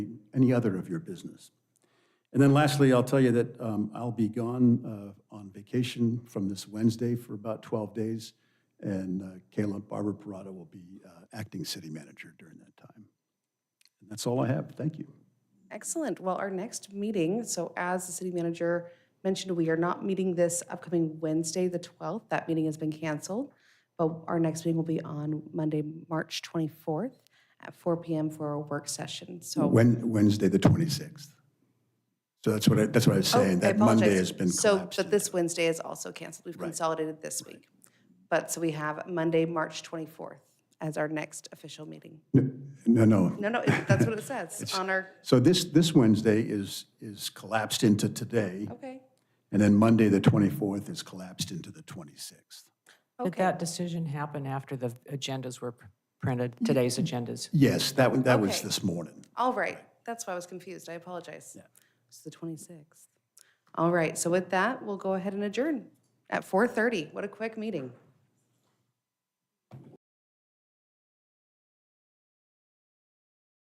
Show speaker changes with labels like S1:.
S1: any other of your business. And then lastly, I'll tell you that um, I'll be gone uh, on vacation from this Wednesday for about 12 days, and uh, Kayla Barber Parada will be uh, acting city manager during that time. And that's all I have. Thank you.
S2: Excellent. Well, our next meeting, so as the city manager mentioned, we are not meeting this upcoming Wednesday, the 12th. That meeting has been canceled. But our next meeting will be on Monday, March 24th at 4 PM for a work session. So
S1: Wen- Wednesday, the 26th. So that's what I, that's what I was
S2: Oh,
S1: saying,
S2: I
S1: that Monday
S2: apologize.
S1: has been
S2: So,
S1: collapsed.
S2: but this Wednesday is also canceled. We've consolidated this week. But, so we have Monday, March 24th as our next official meeting.
S1: No, no.
S2: No, no, it- that's what it says on our,
S1: So this, this Wednesday is, is collapsed into today,
S2: okay,
S1: and then Monday, the 24th, is collapsed into the 26th.
S3: Did
S2: okay.
S3: that decision happen after the agendas were pr- printed, today's agendas?
S1: Yes, that, one- that was
S2: Okay.
S1: this morning.
S2: All right, that's why I was confused, I apologize. It's the 26th. All right, so with that, we'll go ahead and adjourn at 4:30. What a quick meeting.